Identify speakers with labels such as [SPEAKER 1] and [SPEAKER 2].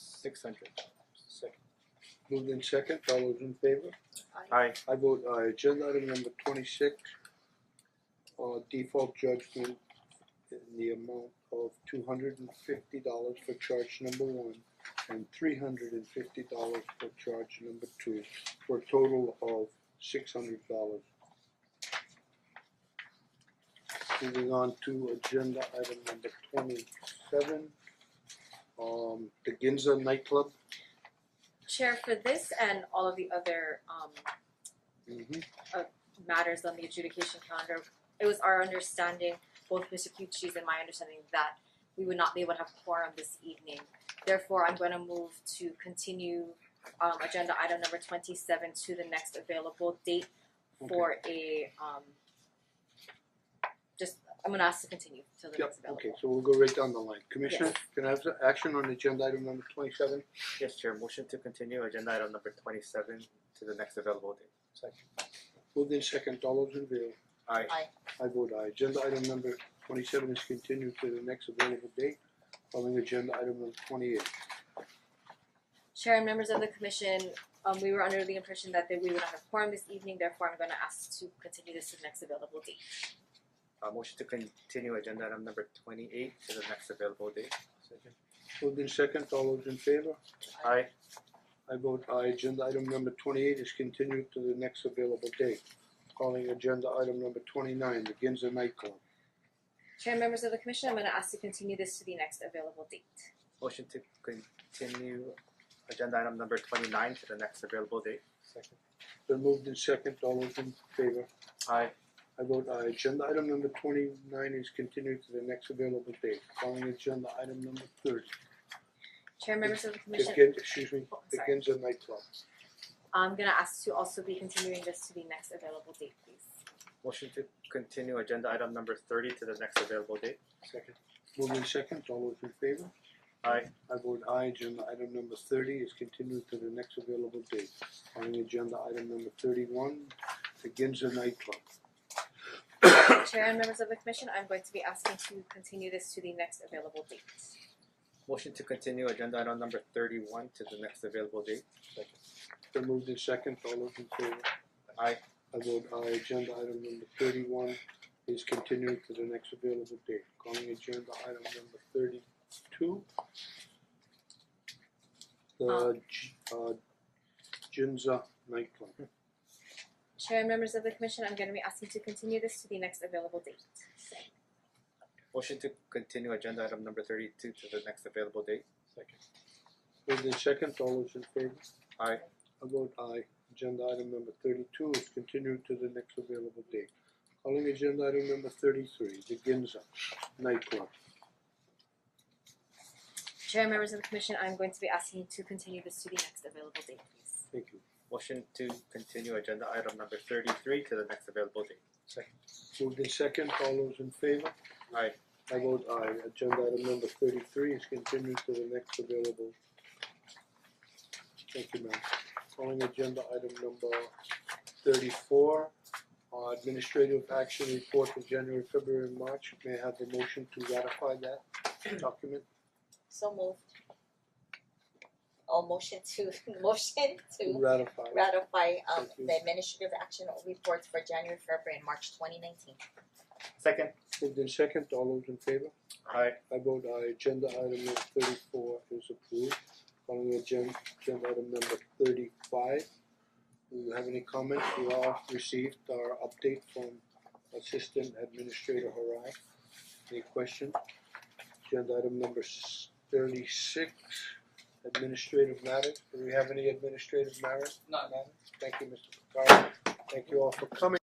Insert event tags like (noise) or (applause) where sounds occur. [SPEAKER 1] six hundred.
[SPEAKER 2] Second.
[SPEAKER 3] Moved in second, all those in favor?
[SPEAKER 2] Aye.
[SPEAKER 3] I vote aye, agenda item number twenty six. Uh default judgment in the amount of two hundred and fifty dollars for charge number one and three hundred and fifty dollars for charge number two for a total of six hundred dollars. Moving on to agenda item number twenty seven. Um the Ginza nightclub.
[SPEAKER 4] Chair, for this and all of the other um
[SPEAKER 3] Mm-hmm.
[SPEAKER 4] matters on the adjudication calendar, it was our understanding, both Mr. Kyuchi's and my understanding, that we would not be able to have quorum this evening. Therefore, I'm gonna move to continue um agenda item number twenty-seven to the next available date for a um just, I'm gonna ask to continue till the
[SPEAKER 3] Yep,
[SPEAKER 4] next available.
[SPEAKER 3] okay, so we'll go right down the line. Commissioner, can I have the action on agenda item number twenty seven?
[SPEAKER 2] Yes, Chair, motion to continue agenda item number twenty seven to the next available date.
[SPEAKER 3] Moved in second, all those in favor?
[SPEAKER 2] Aye.
[SPEAKER 4] Aye.
[SPEAKER 3] I vote aye. Agenda item number twenty seven is continued to the next available date, calling agenda item number twenty eight.
[SPEAKER 4] Chair and members of the commission, um we were under the impression that that we would not have quorum this evening, therefore I'm gonna ask to continue this to the next available date.
[SPEAKER 2] Uh motion to continue agenda item number twenty eight to the next available date. Second.
[SPEAKER 3] Moved in second, all those in favor?
[SPEAKER 2] Aye.
[SPEAKER 3] I vote aye. Agenda item number twenty eight is continued to the next available date, calling agenda item number twenty nine, the Ginza nightclub.
[SPEAKER 4] Chair and members of the commission, I'm gonna ask to continue this to the next available date.
[SPEAKER 2] Motion to continue agenda item number twenty nine to the next available date. Second.
[SPEAKER 3] Then moved in second, all those in favor?
[SPEAKER 2] Aye.
[SPEAKER 3] I vote aye. Agenda item number twenty nine is continued to the next available date. Calling agenda item number thirty.
[SPEAKER 4] Chair and members of the commission,
[SPEAKER 3] Begin, excuse me,
[SPEAKER 4] Oh, I'm sorry.
[SPEAKER 3] begins at nightclub.
[SPEAKER 4] I'm gonna ask to also be continuing this to the next available date, please.
[SPEAKER 2] Motion to continue agenda item number thirty to the next available date.
[SPEAKER 3] Second. Moved in second, all those in favor?
[SPEAKER 2] Aye.
[SPEAKER 3] I vote aye. Agenda item number thirty is continued to the next available date. Calling agenda item number thirty one, the Ginza nightclub.
[SPEAKER 4] Chair and members of the commission, I'm going to be asking to continue this to the next available date.
[SPEAKER 2] Motion to continue agenda item number thirty one to the next available date.
[SPEAKER 3] Then moved in second, all those in favor?
[SPEAKER 2] Aye.
[SPEAKER 3] I vote aye. Agenda item number thirty-one is continued to the next available date. Calling agenda item number thirty-two. The J- uh Jinza nightclub.
[SPEAKER 4] Chair and members of the commission, I'm gonna be asking to continue this to the next available date.
[SPEAKER 2] Motion to continue agenda item number thirty two to the next available date.
[SPEAKER 3] Moved in second, all those in favor?
[SPEAKER 2] Aye.
[SPEAKER 3] I vote aye. Agenda item number thirty-two is continued to the next available date. Calling agenda item number thirty-three, the Ginza nightclub.
[SPEAKER 4] Chair and members of the commission, I'm going to be asking to continue this to the next available date, please.
[SPEAKER 3] Thank you.
[SPEAKER 2] Motion to continue agenda item number thirty-three to the next available date.
[SPEAKER 3] Moved in second, all those in favor?
[SPEAKER 2] Aye.
[SPEAKER 3] I vote aye, agenda item number thirty-three is continued to the next available. Thank you, ma'am. Calling agenda item number thirty-four, uh, administrative action report for January, February, and March. May I have a motion to ratify that document?
[SPEAKER 5] So move. Oh, motion to, (laughs) motion
[SPEAKER 3] To
[SPEAKER 5] to
[SPEAKER 3] Ratify.
[SPEAKER 5] ratify um
[SPEAKER 3] Thank you.
[SPEAKER 5] the administrative action reports for January, February and March twenty nineteen.
[SPEAKER 2] Second.
[SPEAKER 3] Moved in second, all those in favor?
[SPEAKER 2] Aye.
[SPEAKER 3] I vote aye, agenda item number thirty-four is approved. Calling agenda, agenda item number thirty-five. Do you have any comments? We all received our update from Assistant Administrator Harai. Any questions? Agenda item number s- thirty-six, administrative matters. Do we have any administrative matters?
[SPEAKER 6] None.
[SPEAKER 3] Thank you, Mr. Picard. Thank you all for coming.